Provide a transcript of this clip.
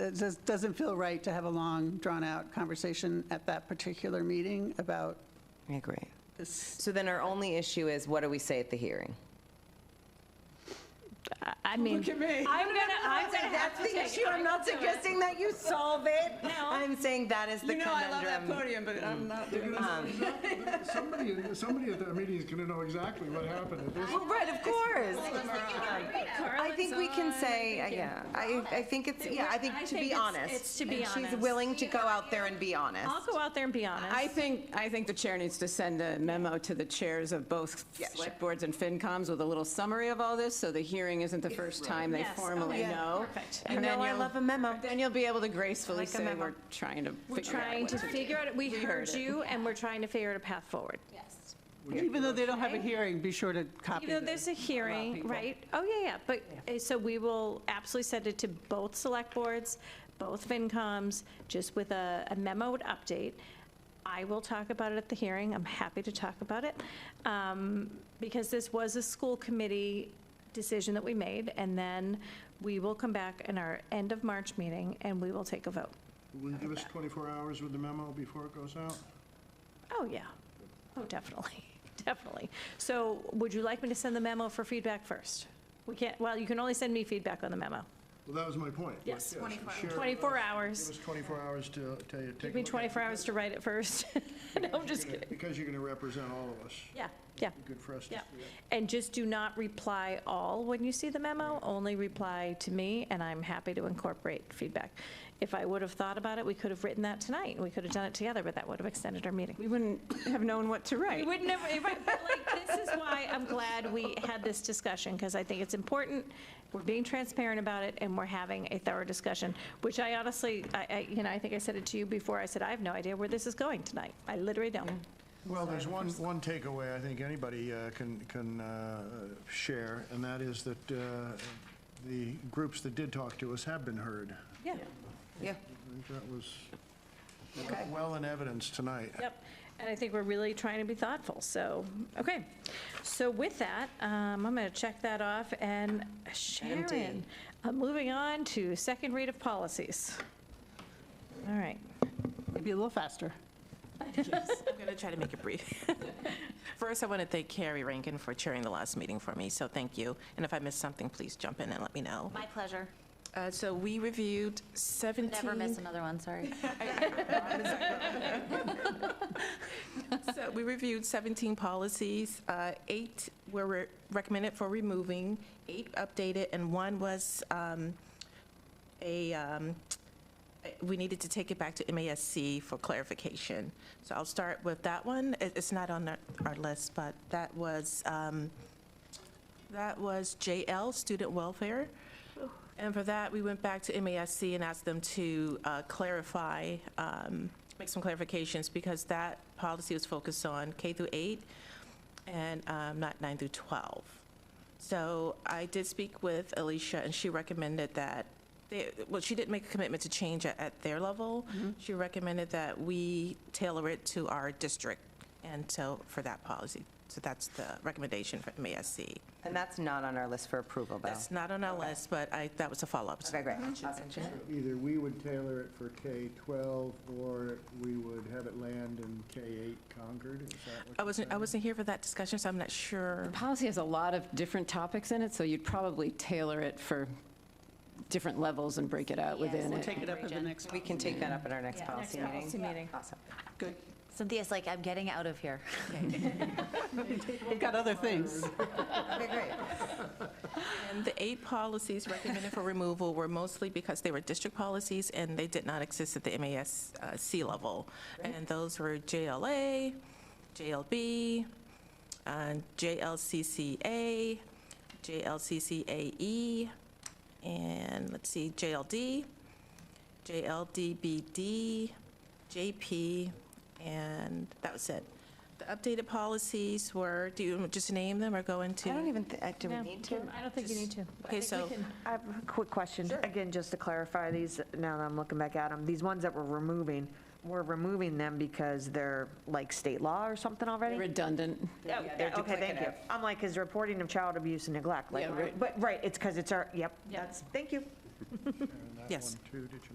it just doesn't feel right to have a long, drawn-out conversation at that particular meeting about I agree. this. So then our only issue is what do we say at the hearing? I- I mean. at me. I'm gonna, I'm gonna have to That's the take. issue. I'm not suggesting that you solve it. I'm saying that is the You know, I love that conundrum. podium, but I'm not doing that. Somebody, Um, somebody at that meeting is gonna know exactly what happened at this. Well, right, of course. I think we can say, uh, yeah, I, I think it's, yeah, I think I to be think it's- honest. it's to be And she's honest. willing to go out there and be honest. I'll go out there and be honest. I think, I think the chair needs to send a memo to the chairs of both select boards and FinComs with a little summary of all this, so the hearing isn't the first time they Yes, formally okay, know. perfect. And You then know I you'll- love a memo. Then you'll be able to gracefully like a say, memo. we're trying to We're figure out trying what to to do. figure out, we heard heard it. you, and we're trying to figure out a path forward. Even though they don't have a hearing, be sure to copy Even though this. there's a hearing, people. right? Oh, yeah, yeah, but, uh, so we will absolutely send it to both select boards, both FinComs, just with a a memo to update. I will talk about it at the hearing, I'm happy to talk about it, um, because this was a school committee decision that we made, and then we will come back in our end of March meeting, and we will take a vote. Will you give us 24 hours with the memo before it goes out? Oh, yeah. Oh, definitely, definitely. So would you like me to send the memo for feedback first? We can't, well, you can only send me feedback on the memo. Well, that was my point. Yes, 24 hours. 24 Give hours. us 24 hours to, to take a Give me look at 24 it, hours to write it first. No, I'm just because- kidding. Because you're gonna represent all of us. Yeah, yeah, It'd be Good for us to yeah. see it. And just do not reply all when you see the memo, only reply to me, and I'm happy to incorporate feedback. If I would have thought about it, we could have written that tonight, we could have done it together, but that would have extended our meeting. We wouldn't have known what to We write. would never, right, but like, this is why I'm glad we had this discussion, because I think it's important. We're being transparent about it, and we're having a thorough discussion, which I honestly, I, I, you know, I think I said it to you before, I said, I have no idea where this is going tonight. I literally don't. Well, there's one, one takeaway I think anybody uh, can, can uh, share, and that is that uh, the groups that did talk to us have been heard. Yeah, Yeah. I think that was well in evidence tonight. yep. And I think we're really trying to be thoughtful, so, okay. So with that, um, I'm gonna check that off, and Sharon, I'm moving on to second read of policies. All right. Maybe a little faster. I'm going to try to make it brief. First, I want to thank Carrie Rankin for chairing the last meeting for me, so thank you. And if I missed something, please jump in and let me know. My pleasure. Uh, So we reviewed 17... Never miss another one, sorry. So we reviewed 17 policies. Uh, Eight were re- recommended for removing, eight updated, and one was um, a, um, we needed to take it back to MASC for clarification. So I'll start with that one. It- It's not on our- our list, but that was, um, that was JL, Student Welfare. And for that, we went back to MASC and asked them to uh, clarify, um, make some clarifications, because that policy was focused on K through 8 and um, not 9 through 12. So I did speak with Alicia, and she recommended that, they- well, she didn't make a commitment to change at- at their level. She recommended that we tailor it to our district, and so, for that policy. So that's the recommendation for MASC. And that's not on our list for approval, though. That's not on our list, but I, that was a follow-up. Okay, great. Awesome. Either we would tailor it for K-12, or we would have it land in K-8 Concord, is that what I you're wasn't, I saying? wasn't here for that discussion, so I'm not sure. Policy has a lot of different topics in it, so you'd probably tailor it for different levels and break it out Yes. within We'll it. take it up at the Region. next We one. can take that up at our next Yeah. policy Next meeting. policy meeting. Awesome. Good. Cynthia's like, I'm getting out of here. We've got other things. Okay, great. And the eight policies recommended for removal were mostly because they were district policies and they did not exist at the MASC uh, level. And those were JLA, JLB, and JLCCA, JLCCAE, E, and let's see, JLD, JLDBD, JP, and that was it. The updated policies were, do you want me to just name them or go into? I don't even, thi- uh, do we No, need to? I don't think you need to. Okay, so. I have a quick question. Again, just to clarify these, now that I'm looking back at them, these ones that we're removing, we're removing them because they're like state law or something already? Redundant. Oh, they're Okay, thank you. duplicative. I'm like, is reporting of child abuse and neglect, like, Yeah, right. but, right, it's because it's our, yep, that's, thank you. And that Yes. one, too, did you